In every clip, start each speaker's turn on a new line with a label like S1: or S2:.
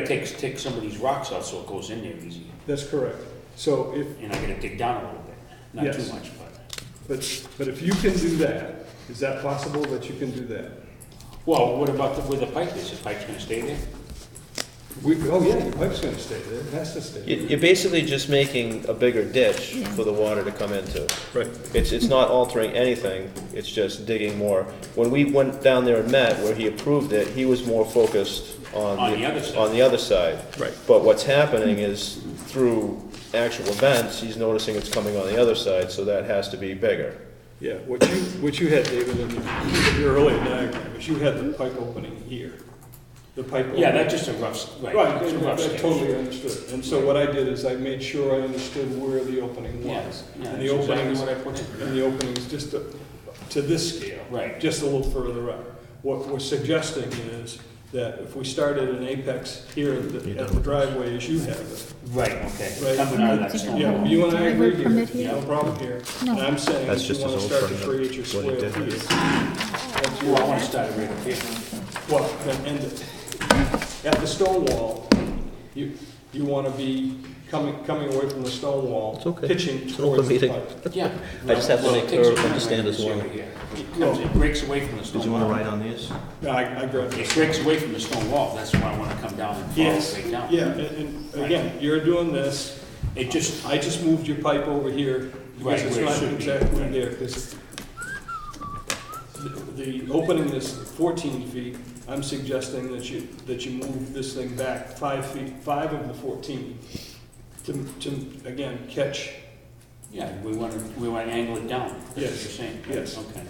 S1: gotta take, take some of these rocks out so it goes in there easy,
S2: That's correct. So if,
S1: and I gotta dig down a little bit, not too
S2: Yes.
S1: much, but,
S2: but, but if you can do that, is that possible that you can do that?
S1: well, what about the- where the pipe is, the pipe's gonna stay there?
S2: We, oh yeah, your pipe's gonna stay there, it has to stay.
S3: You- You're basically just making a bigger ditch for the water to come into.
S2: Right.
S3: It's, it's not altering anything, it's just digging more. When we went down there and met, where he approved it, he was more focused on.
S1: On the other side.
S3: On the other side.
S2: Right.
S3: But what's happening is, through actual events, he's noticing it's coming on the other side, so that has to be bigger.
S2: Yeah, what you, what you had, David, in your- your earlier diagram, is you had the pipe opening here. The pipe.
S1: Yeah,
S2: opening-
S1: that's just a rough, s- right.
S2: Right,
S1: it's a
S2: I
S1: rough
S2: I
S1: sketch.
S2: totally understood. And so what I did is I made sure I understood where the opening
S1: Yeah,
S2: was.
S1: yeah,
S2: And
S1: that's
S2: the
S1: exactly
S2: openings,
S1: what I put in.
S2: and the openings just to, to this scale.
S1: Right.
S2: Just a little further up. What we're suggesting is that if we started an apex here at the at the driveway as you have it.
S1: Right, okay,
S2: Right.
S1: coming out of that stone
S2: Yeah,
S1: wall.
S2: you and I
S4: Can I
S2: agree
S4: vote
S2: here,
S4: permit here?
S2: no problem here.
S4: No.
S2: And I'm saying,
S3: That's
S2: if you
S3: just
S2: wanna
S3: his old
S2: start to
S3: permit,
S2: create your square
S3: what he did.
S2: feet,
S1: Well, I wanna start it right up here.
S2: well, then end it. At the stone wall, you, you wanna be coming, coming away from the stone wall,
S5: It's okay.
S2: pitching
S5: It's an open
S2: towards the
S5: meeting.
S2: pipe.
S1: Yeah.
S5: I just have to
S1: Well, it
S5: make
S1: takes
S5: her
S1: a turn
S5: understand
S1: right
S5: as
S1: this
S5: well.
S1: area here. It comes, it breaks away from the stone wall.
S3: on these?
S2: No, I, I grab
S1: It breaks away from the stone wall, that's why I wanna come down and follow
S2: Yes,
S1: right down.
S2: yeah, and, and again, you're doing this,
S1: It just,
S2: I just moved your pipe over here,
S1: Right,
S2: because it's
S1: where it
S2: not
S1: should be,
S2: exactly
S1: right.
S2: there, 'cause the, the opening is fourteen feet, I'm suggesting that you, that you move this thing back five feet, five of the fourteen, to, to, again, catch,
S1: yeah, we wanna, we wanna angle it down, that's what you're
S2: Yes,
S1: saying.
S2: yes.
S1: Okay.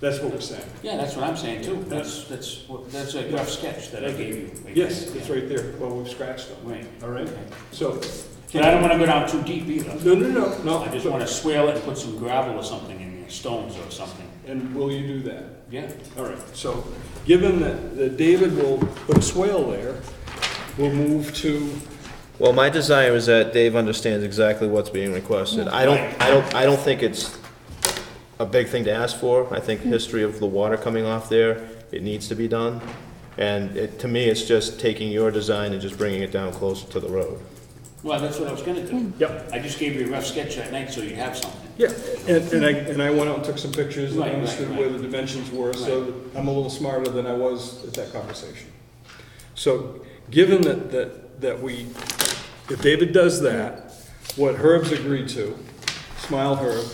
S2: that's what we're saying.
S1: Yeah, that's what I'm saying too, that's, that's, what- that's a rough sketch that I gave you.
S2: Yes, it's right there, well, we've scratched them,
S1: Right.
S2: all right?
S1: Okay.
S2: So,
S1: But I don't wanna go down too deep either,
S2: no, no, no, no.
S1: I just wanna swale it and put some gravel or something in there, stones or something,
S2: And will you do that?
S1: yeah.
S2: All right, so, given that, that David will put a swale there, we'll move to,
S3: Well, my desire is that Dave understands exactly what's being requested. I don't, I don't, I don't think it's a big thing to ask for. I think history of the water coming off there, it needs to be done. And it, to me, it's just taking your design and just bringing it down closer to the road.
S1: Well, that's what I was gonna do.
S2: Yep.
S1: I just gave you a rough sketch that night, so you have something.
S2: yeah, and, and I, and I went out and took some pictures and
S1: Right, right,
S2: understood where the dimensions were, so I'm a little smarter than I was at that conversation. So, given that, that, that we, if David does that, what Herb's agreed to, smile Herb,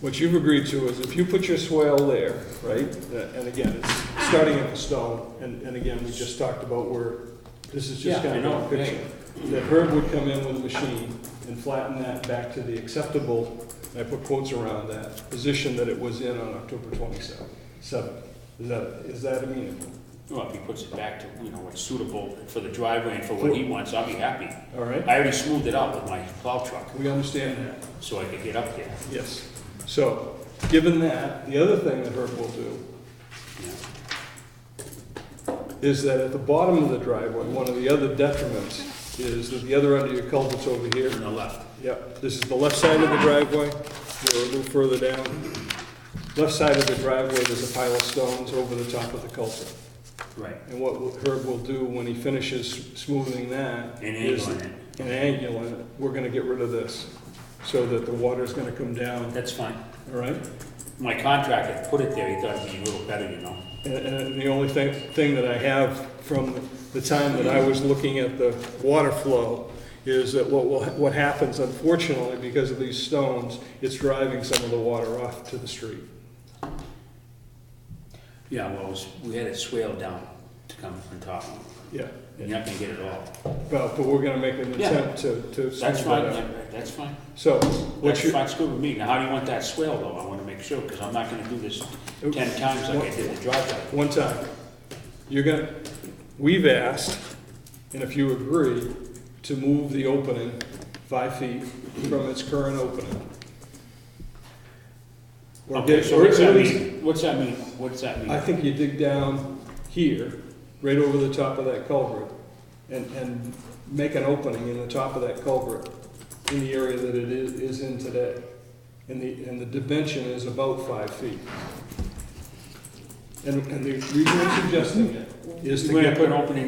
S2: what you've agreed to is if you put your swale there, right, uh, and again, it's starting at the stone, and, and again, we just talked about where, this is just
S1: Yeah, I
S2: kind of
S1: know,
S2: a picture. That Herb would come in with a machine and flatten that back to the acceptable, and I put quotes around that, position that it was in on October twenty-seventh, seventh. Is that, is that amenable?
S1: Well, if he puts it back to, you know, what's suitable for the driveway and for what he wants, I'll be happy.
S2: All right?
S1: I already smoothed it out with my plow truck,
S2: We understand that.
S1: so I could get up there.
S2: Yes. So, given that, the other thing that Herb will do is that at the bottom of the driveway, one of the other detriments is that the other end of your culvert's over here.
S1: On the left,
S2: Yep, this is the left side of the driveway, we're a little further down. Left side of the driveway, there's a pile of stones over the top of the culvert.
S1: right.
S2: And what Herb will do when he finishes smoothing that
S1: And
S2: is
S1: angling it.
S2: an angle in it, we're gonna get rid of this, so that the water's gonna come down,
S1: That's fine.
S2: all right?
S1: My contractor put it there, he thought it'd be a little better, you know?
S2: And, and the only thing, thing that I have from the time that I was looking at the water flow is that what will, what happens unfortunately because of these stones, it's driving some of the water off to the street.
S1: Yeah, well, it was- we had it swaled down to come from top.
S2: Yeah,
S1: You're not gonna get it all.
S2: but, but we're gonna make an
S1: Yeah.
S2: attempt to, to. smooth
S1: That's
S2: that
S1: fine,
S2: out.
S1: that- that's fine.
S2: So,
S1: That's
S2: what's your,
S1: fine, it's good with me. Now, how do you want that swale though? I wanna make sure, because I'm not gonna do this ten times like I did the driveway.
S2: one time, you're gonna, we've asked, and if you agree, to move the opening five feet from its current opening. Or
S1: Okay,
S2: get-
S1: so
S2: or
S1: what's
S2: at
S1: that
S2: least-
S1: mean? What's that mean? What's that mean?
S2: I think you dig down here, right over the top of that culvert, and, and make an opening in the top of that culvert in the area that it is, is in today. And the, and the dimension is about five feet.
S6: And, and the reason I'm suggesting it is to
S2: We're
S6: get.
S2: gonna put an opening